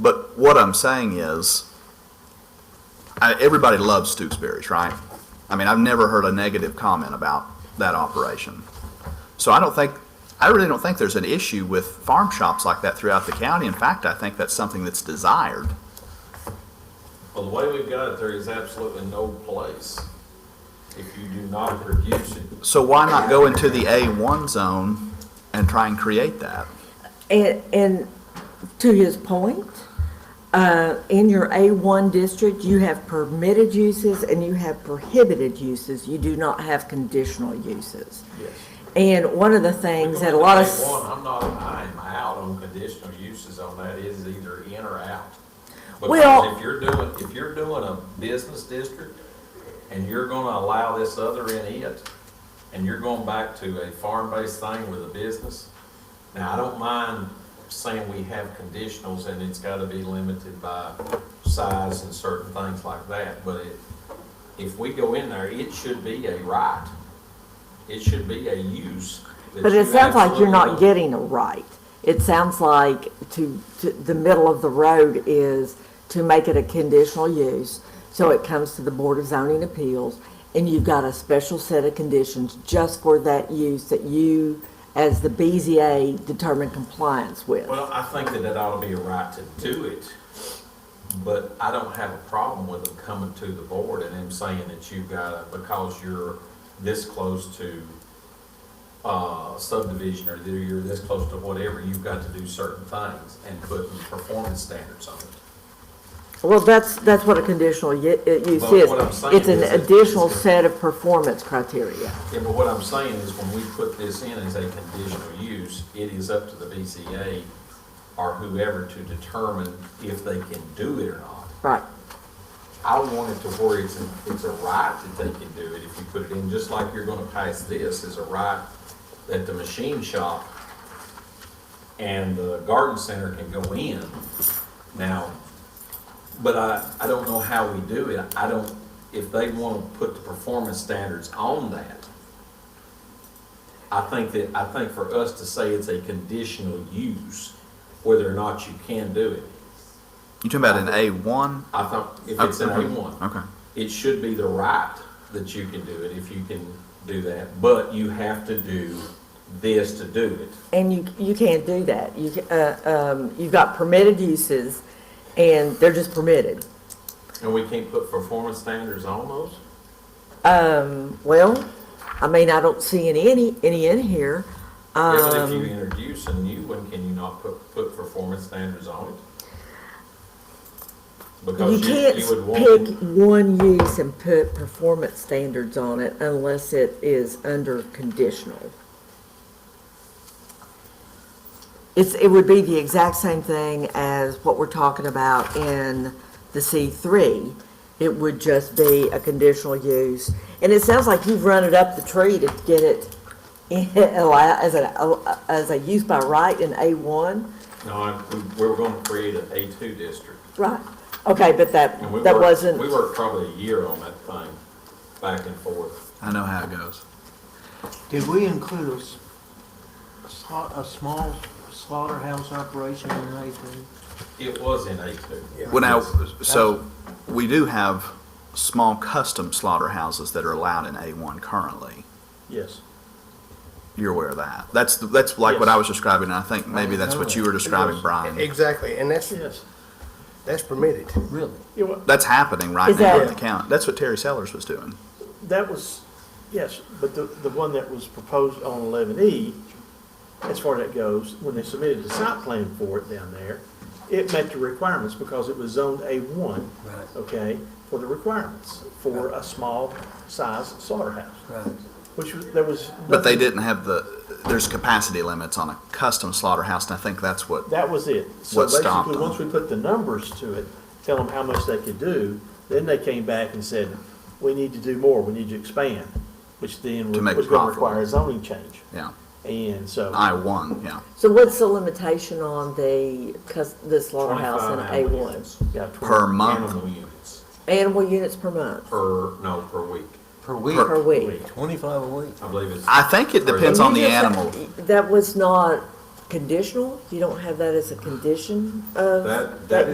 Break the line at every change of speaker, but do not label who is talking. But what I'm saying is, I, everybody loves Stoops Berries, right? I mean, I've never heard a negative comment about that operation. So I don't think, I really don't think there's an issue with farm shops like that throughout the county. In fact, I think that's something that's desired.
Well, the way we've got it, there is absolutely no place if you do not produce it.
So why not go into the A1 zone and try and create that?
And, and to his point, uh, in your A1 district, you have permitted uses and you have prohibited uses. You do not have conditional uses.
Yes.
And one of the things that a lot of, s-
One, I'm not, I'm out on conditional uses on that, is either in or out.
Well-
Because if you're doing, if you're doing a business district and you're gonna allow this other in it, and you're going back to a farm-based thing with a business, now, I don't mind saying we have conditionals and it's gotta be limited by size and certain things like that, but it, if we go in there, it should be a right. It should be a use. that
but
you
it sounds like you're not
absolutely-
getting a right. It sounds like to, to, the middle of the road is to make it a conditional use. So it comes to the Board of Zoning Appeals and you've got a special set of conditions just for that use that you, as the BZA, determine compliance with.
Well, I think that it ought to be a right to do it, but I don't have a problem with them coming to the board and them saying that you've got, to because you're this close to uh, subdivision, or that you're this close to whatever, you've got to do certain things and put performance standards on it.
Well, that's, that's what a conditional ye- uh, use
Well,
is.
what I'm saying
It's an
is it-
additional
it's a-
set of performance criteria.
Yeah, but what I'm saying is when we put this in as a conditional use, it is up to the BCA or whoever to determine if they can do it or not.
Right,
I want it to where it's, it's a right that they can do it if you put it in, just like you're gonna pass this as a right that the machine shop and the garden center can go in now. But I, I don't know how we do it. I don't, if they wanna put the performance standards on that, I think that, I think for us to say it's a conditional use, whether or not you can do it,
You talking about an A1?
I thought if it's an A one
Okay.
it should be the right that you can do it if you can do that, but you have to do this to do it.
and you, you can't do that. You, ca- uh, um, you've got permitted uses, and they're just permitted.
And we can't put performance standards on those?
Um, well, I mean, I don't see any, any, any in here.
Yeah, but if you
Um,
introduce a new one, can you not put, put performance standards on it?
you
Because
can't
you would want,
pick one use and put performance standards on it unless it is under conditional. It's, it would be the exact same thing as what we're talking about in the C three. It would just be a conditional use, and it sounds like you've run it up the tree to get it in- allow- as a, oh, as a use by right in A one,
no, I- we- we're gonna create an A two district.
right? Okay, but that,
And we
that
worked-
wasn't.
We worked probably a year on that thing, back and forth.
I know how it goes.
Did we include a s- a, sla- a small slaughterhouse operation in anything?
It was in A two.
Well, now, so we do have small custom slaughterhouses that are allowed in A1 currently.
Yes.
You're aware of that. That's, that's like what I was describing, and I think maybe that's what you were describing, Brian.
Exactly, and that's,
Yes,
that's permitted.
really.
You know,
That's happening right
Is
now in
that-
the county. That's what Terry Sellers was doing.
that was, yes, but the, the one that was proposed on eleven E, as far as that goes, when they submitted the site plan for it down there, it met the requirements because it was zoned A one,
Right.
okay, for the requirements for a small size slaughterhouse,
Right.
which was, there was.
But they
nothing-
didn't have the, there's capacity limits on a custom slaughterhouse, and I think that's what,
That was it. So
What stopped
basically,
them?
once we put the numbers to it, tell them how much they could do, then they came back and said, we need to do more, we need to expand, which then
To make it
was gonna
profitable.
require a zoning change.
yeah,
And so.
I-1, yeah.
So what's the limitation on the, cus the slaughterhouse in
25 animal
A1?
units.
Yeah, tw-
Per month,
Animal units,
Animal units per month,
per, no, per week.
Per week?
per week?
Twenty-five a week?
I believe it's.
I think it depends on the
You just-
animal.
That was not conditional? You don't have that as a condition of?
That- that